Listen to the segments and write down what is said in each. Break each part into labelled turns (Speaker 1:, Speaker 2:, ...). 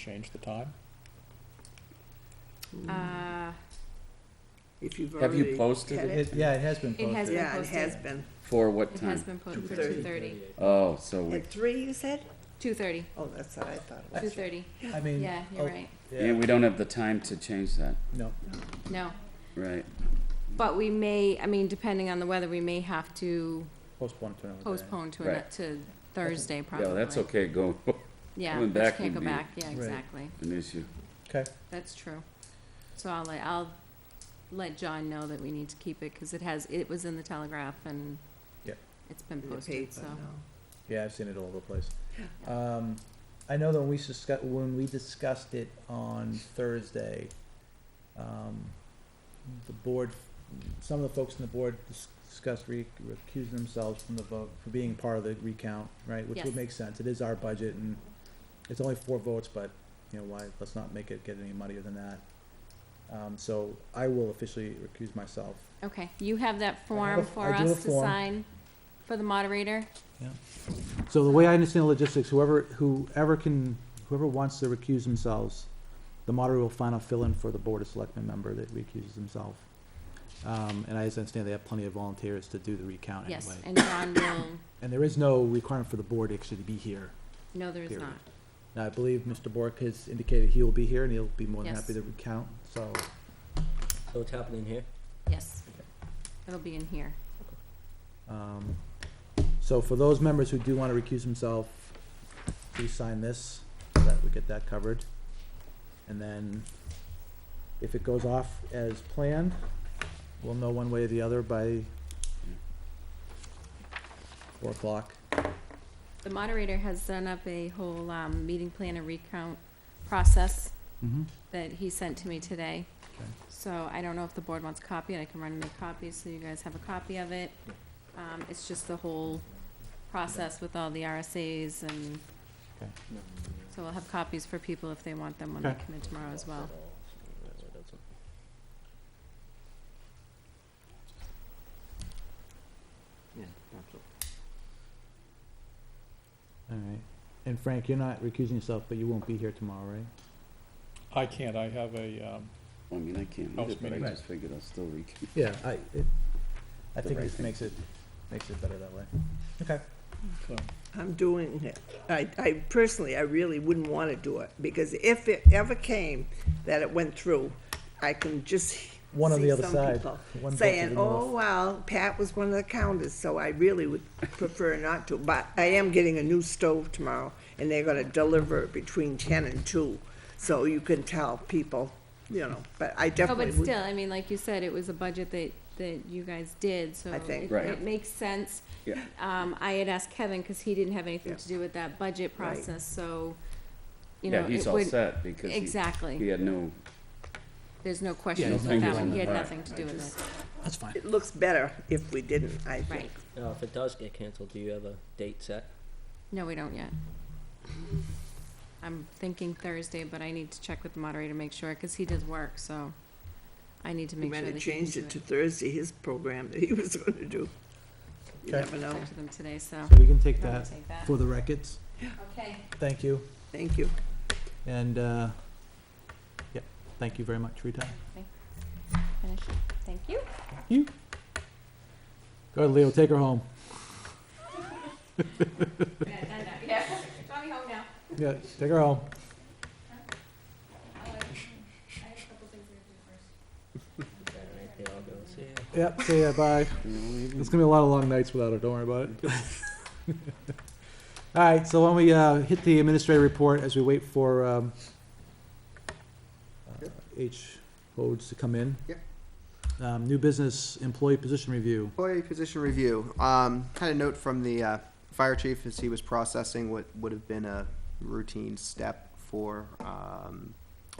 Speaker 1: Change the time?
Speaker 2: Uh,
Speaker 3: If you've
Speaker 4: Have you
Speaker 3: already
Speaker 4: posted
Speaker 3: had
Speaker 4: it?
Speaker 3: it.
Speaker 1: Yeah, it has been
Speaker 2: It has
Speaker 1: posted.
Speaker 2: been
Speaker 3: Yeah, it has
Speaker 2: posted.
Speaker 3: been.
Speaker 4: For what
Speaker 2: It has
Speaker 4: time?
Speaker 2: been posted for
Speaker 3: 2:30.
Speaker 2: two thirty.
Speaker 4: Oh, so we,
Speaker 3: At three, you said?
Speaker 2: Two thirty.
Speaker 3: Oh, that's what I thought it
Speaker 2: Two
Speaker 3: was.
Speaker 2: thirty.
Speaker 1: I mean.
Speaker 2: Yeah, you're
Speaker 1: oh,
Speaker 2: right.
Speaker 4: yeah, we don't have the time to change that,
Speaker 1: No,
Speaker 2: No,
Speaker 4: right?
Speaker 2: but we may, I mean, depending on the weather, we may have to
Speaker 1: postpone to another day.
Speaker 2: postpone to, an-
Speaker 4: Right.
Speaker 2: to Thursday probably.
Speaker 4: Yeah, that's okay, go,
Speaker 2: Yeah,
Speaker 4: Going
Speaker 2: which
Speaker 4: back
Speaker 2: can't
Speaker 4: would
Speaker 2: go
Speaker 4: be-
Speaker 2: back. Yeah,
Speaker 1: Right.
Speaker 2: exactly.
Speaker 4: an issue.
Speaker 1: Okay,
Speaker 2: That's true. So I'll let, I'll let John know that we need to keep it because it has, it was in the Telegraph and
Speaker 1: Yep.
Speaker 2: it's been
Speaker 3: In the
Speaker 2: posted,
Speaker 3: paper,
Speaker 2: so.
Speaker 3: no.
Speaker 1: yeah, I've seen it all over the place. Um, I know that when we discussed, when we discussed it on Thursday, um, the board, some of the folks on the board dis- discussed re- recusing themselves from the vote, for being part of the recount, right? Which
Speaker 2: Yes.
Speaker 1: would make sense, it is our budget and it's only four votes, but, you know, why, let's not make it get any muddier than that. Um, so I will officially recuse myself.
Speaker 2: Okay, you have that
Speaker 1: I
Speaker 2: form
Speaker 1: do
Speaker 2: for
Speaker 1: have a
Speaker 2: us to
Speaker 1: form.
Speaker 2: sign for the moderator?
Speaker 1: So the way I understand the logistics, whoever, whoever can, whoever wants to recuse themselves, the moderator will find a fill-in for the Board of Selectmen member that recuses himself. Um, and I just understand they have plenty of volunteers to do the recount anyway.
Speaker 2: Yes, and John will,
Speaker 1: And there is no requirement for the board actually to be here.
Speaker 2: no, there is
Speaker 1: Period.
Speaker 2: not.
Speaker 1: Now, I believe Mr. Bork has indicated he will be here and he'll be more than
Speaker 2: Yes.
Speaker 1: happy to recount, so.
Speaker 5: So it's happening here?
Speaker 2: Yes. It'll be in here.
Speaker 1: Um, So for those members who do want to recuse themselves, please sign this, so that we get that covered. And then, if it goes off as planned, we'll know one way or the other by four o'clock.
Speaker 2: The moderator has done up a whole, um, meeting plan and recount process
Speaker 1: Mm-hmm.
Speaker 2: that he sent to me today.
Speaker 1: Okay.
Speaker 2: So I don't know if the board wants a copy, and I can run and make copies, so you guys have a copy of it. Um, it's just the whole process with all the RSAs and, so we'll have copies for people if they want them when they
Speaker 1: Okay.
Speaker 2: come in tomorrow as well.
Speaker 5: Yeah, that's all.
Speaker 1: All right. And Frank, you're not recusing yourself, but you won't be here tomorrow, right?
Speaker 6: I can't, I have a, um,
Speaker 4: I mean, I can't read
Speaker 6: House
Speaker 4: it, but I
Speaker 6: meeting.
Speaker 4: just figured I'll still read.
Speaker 1: Yeah, I, it, I
Speaker 4: The
Speaker 1: think
Speaker 4: right
Speaker 1: this
Speaker 4: thing.
Speaker 1: makes it, makes it better that way. Okay.
Speaker 6: so,
Speaker 3: I'm doing it. I, I personally, I really wouldn't want to do it, because if it ever came that it went through, I can just
Speaker 1: One on
Speaker 3: see
Speaker 1: the other
Speaker 3: some
Speaker 1: side,
Speaker 3: people
Speaker 1: one vote to
Speaker 3: Saying,
Speaker 1: the
Speaker 3: oh,
Speaker 1: north."
Speaker 3: well, Pat was one of the counters, so I really would prefer not to. But I am getting a new stove tomorrow, and they're gonna deliver it between ten and two, so you can tell people, you know, but I
Speaker 2: Oh,
Speaker 3: definitely
Speaker 2: but
Speaker 3: would.
Speaker 2: still, I mean, like you said, it was a budget that, that you guys did, so
Speaker 3: I think,
Speaker 2: it,
Speaker 4: Right.
Speaker 2: it makes sense.
Speaker 4: Yeah.
Speaker 2: Um, I had asked Kevin, cause he didn't have anything
Speaker 3: Yeah.
Speaker 2: to do with that budget
Speaker 3: Right.
Speaker 2: process, so, you know,
Speaker 4: Yeah, he's
Speaker 2: it
Speaker 4: all
Speaker 2: would.
Speaker 4: set because he, he
Speaker 2: Exactly,
Speaker 4: had no,
Speaker 2: there's no question
Speaker 4: no
Speaker 2: about that
Speaker 4: fingers
Speaker 2: one,
Speaker 4: in
Speaker 2: he
Speaker 4: the
Speaker 2: had
Speaker 4: pie.
Speaker 2: nothing to do with it,
Speaker 1: That's fine.
Speaker 3: It looks better if we didn't, I think.
Speaker 2: right,
Speaker 5: Now, Uh, if it does get canceled, do you have a date set?
Speaker 2: no, we don't yet. I'm thinking Thursday, but I need to check with the moderator, to make sure, cause he does work, so I need to
Speaker 3: We
Speaker 2: make sure
Speaker 3: might
Speaker 2: that
Speaker 3: have
Speaker 2: he can
Speaker 3: changed
Speaker 2: do
Speaker 3: it to
Speaker 2: it.
Speaker 3: Thursday, his program that he was gonna do. You
Speaker 1: Okay.
Speaker 3: never know.
Speaker 2: Talk to them today, so.
Speaker 1: So we can take
Speaker 2: I'll
Speaker 1: that
Speaker 2: take that.
Speaker 1: for the records.
Speaker 2: Okay,
Speaker 1: Thank you.
Speaker 3: Thank you.
Speaker 1: And, uh, yeah, thank you very much for your time.
Speaker 2: finish, thank you.
Speaker 1: Go ahead, Leo, take her home.
Speaker 2: Yeah, done that. Yeah, Tommy home now.
Speaker 1: Yeah, take her home.
Speaker 5: Alright, they all go, see ya.
Speaker 1: Yep, see ya, bye. It's gonna be a lot of long nights without her, don't worry about it. All right, so when we, uh, hit the administrative report as we wait for, um, uh, H. Hodes to come in.
Speaker 7: Yep.
Speaker 1: Um, new business employee position review.
Speaker 7: Employee position review. Um, had a note from the, uh, fire chief as he was processing what would have been a routine step for, um,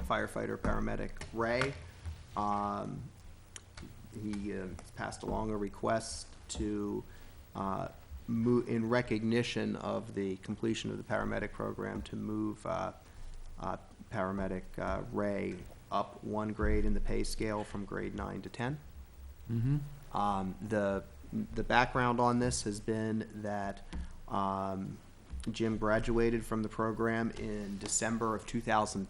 Speaker 7: firefighter, paramedic Ray. Um, he, uh, passed along a request to, uh, move, in recognition of the completion of the paramedic program, to move, uh, uh, paramedic, uh, Ray up one grade in the pay scale from grade nine to ten.
Speaker 1: Mm-hmm.
Speaker 7: Um, the, the background on this has been that, um, Jim graduated from the program in December of 2010.